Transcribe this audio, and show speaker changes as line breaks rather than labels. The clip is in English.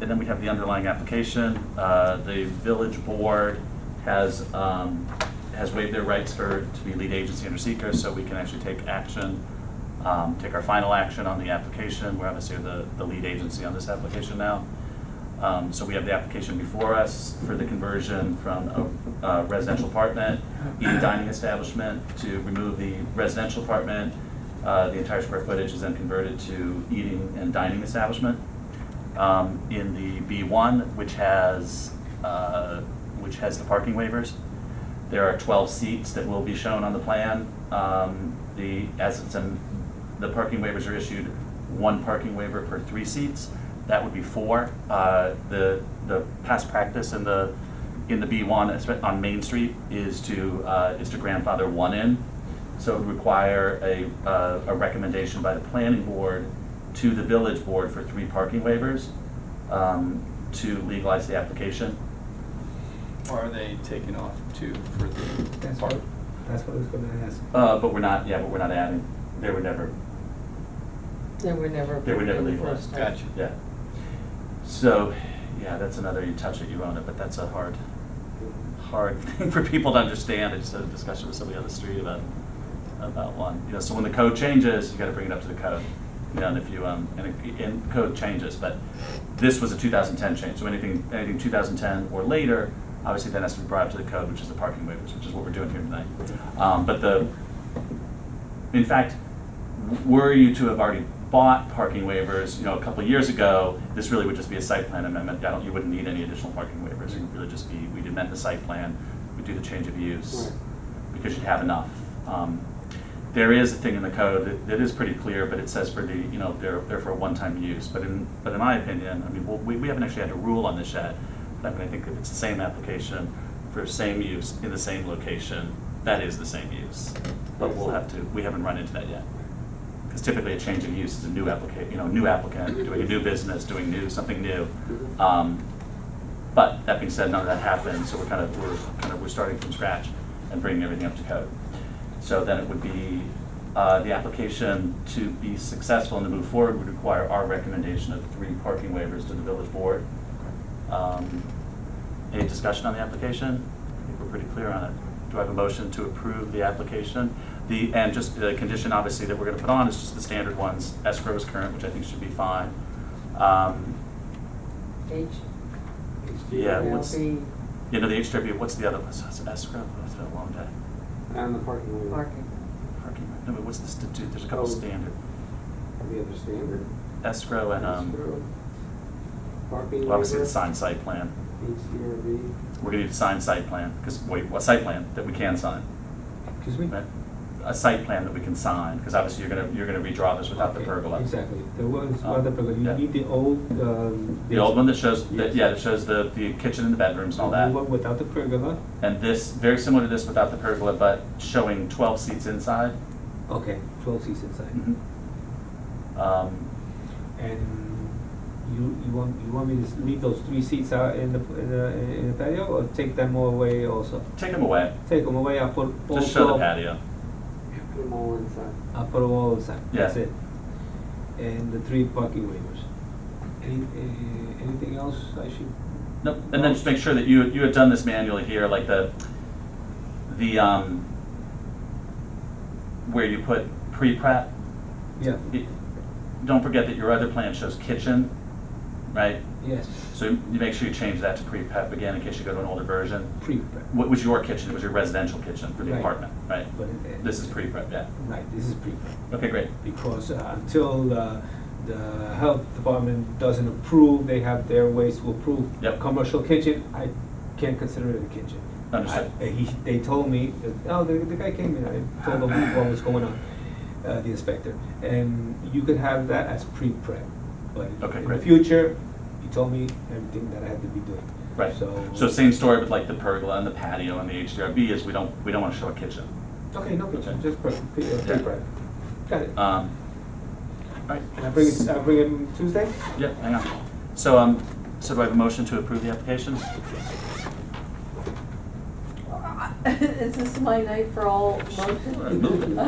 And then we have the underlying application. Uh, The village board has, um, has waived their rights for, to be lead agency under seeker, so we can actually take action, um, take our final action on the application. We're obviously the, the lead agency on this application now. Um, So we have the application before us for the conversion from a uh, residential apartment, eating dining establishment, to remove the residential apartment. Uh, The entire square footage is then converted to eating and dining establishment. Um, In the B1, which has, uh, which has the parking waivers, there are 12 seats that will be shown on the plan. Um, The, as it's in, the parking waivers are issued, one parking waiver per three seats. That would be four. Uh, The, the past practice in the, in the B1 espe- on Main Street is to, uh, is to grandfather one in. So it would require a, uh, a recommendation by the planning board to the village board for three parking waivers um, to legalize the application.
Or are they taking off two for the
That's
park?
what, that's what I was gonna ask.
Uh, But we're not, yeah, but we're not adding, there were never,
They were never.
They were never
in the
legal.
first time.
Gotcha.
yeah. So, yeah, that's another, you touch it, you own it, but that's a hard, hard thing for people to understand. I just had a discussion with somebody on the street about, about one. You know, so when the code changes, you gotta bring it up to the code. You know, and if you, um, and, it- and code changes, but this was a two thousand ten change, so anything, anything two thousand ten or later, obviously then has to be brought up to the code, which is the parking waivers, which is what we're doing here tonight. Um, but the, in fact, w- were you to have already bought parking waivers, you know, a couple of years ago, this really would just be a site plan amendment. I don't, you wouldn't need any additional parking waivers. It would really just be, we'd amend the site plan, we'd do the change of use, because you'd have enough. Um, There is a thing in the code that, that is pretty clear, but it says for the, you know, they're, they're for a one-time use. But in, but in my opinion, I mean, well, we, we haven't actually had a rule on this yet. But I mean, I think if it's the same application for same use in the same location, that is the same use. But we'll have to, we haven't run into that yet. Because typically a change of use is a new applicant, you know, new applicant, doing a new business, doing new, something new. Um, But that being said, none of that happened, so we're kind of, we're kind of, we're starting from scratch and bringing everything up to code. So then it would be, uh, the application to be successful and to move forward would require our recommendation of three parking waivers to the village board. Um, Any discussion on the application? I think we're pretty clear on it. Do I have a motion to approve the application? The, and just the condition, obviously, that we're gonna put on is just the standard ones. Escrow is current, which I think should be fine. Um,
H.
Yeah,
will
what's, you
be
know, the HW, what's the other one? So it's Escrow, that's been a long day.
And the parking lot.
parking.
Parking, no, but what's the, stu- there's a couple
Oh.
standard.
The other standard.
Escrow and, um,
Escrow. Parking.
obviously the
waiver,
signed site plan.
HDRB.
We're gonna need a signed site plan, because, wait, what site plan that we can sign?
Excuse me?
right? A site plan that we can sign, because obviously you're gonna, you're gonna redraw this without the
Okay,
pergola.
Exactly, there was
Uh,
one pergola, you
yeah.
need the old, um.
The old one that shows, that
Yes.
yeah, that shows the, the kitchen and the bedrooms and all
The
that.
one without the pergola,
And this, very similar to this without the pergola, but showing twelve seats inside.
okay, twelve seats inside.
Mm-hmm. Um,
And you, you want, you want me to leave those three seats out in the, in the, in the patio, or take them all away also?
Take them away,
Take them away, I'll put all
just show the
twelve-
patio.
Put them all inside.
I'll put all inside, that's
Yeah.
it. And the three parking waivers. Any, uh, anything else I should?
Nope, and then just make sure that you, you had done this manually here, like the, the, um, where you put pre-prep.
Yeah,
It- Don't forget that your other plan shows kitchen, right?
yes,
So you you make sure you change that to pre-prep again in case you go to an older version.
pre-prep.
What was your kitchen? It was your residential kitchen for the
Right.
apartment, right?
But it-
This is pre-prep, yeah.
Right, this is pre-prep.
Okay, great.
because uh, until uh, the health department doesn't approve, they have their ways to approve.
Yep.
Commercial kitchen, I can't consider it a kitchen.
Understood.
I- he, they told me, that, oh, the, the guy came in, I told him what was going on, uh, the inspector. And you could have that as pre-prep, but
Okay,
in the
great.
future, he told me everything that I had to be doing.
Right.
So.
So same story with like the pergola and the patio and the HDRB is we don't, we don't want to show a kitchen.
Okay, no
Okay.
kitchen, just pre- pre- uh,
Yeah.
pre-prep. Got it.
Um, All right.
Can I bring it, I bring it Tuesday?
Yeah, hang on. So, um, so do I have a motion to approve the application?
Is this Uh, my night for all motions?
Move it.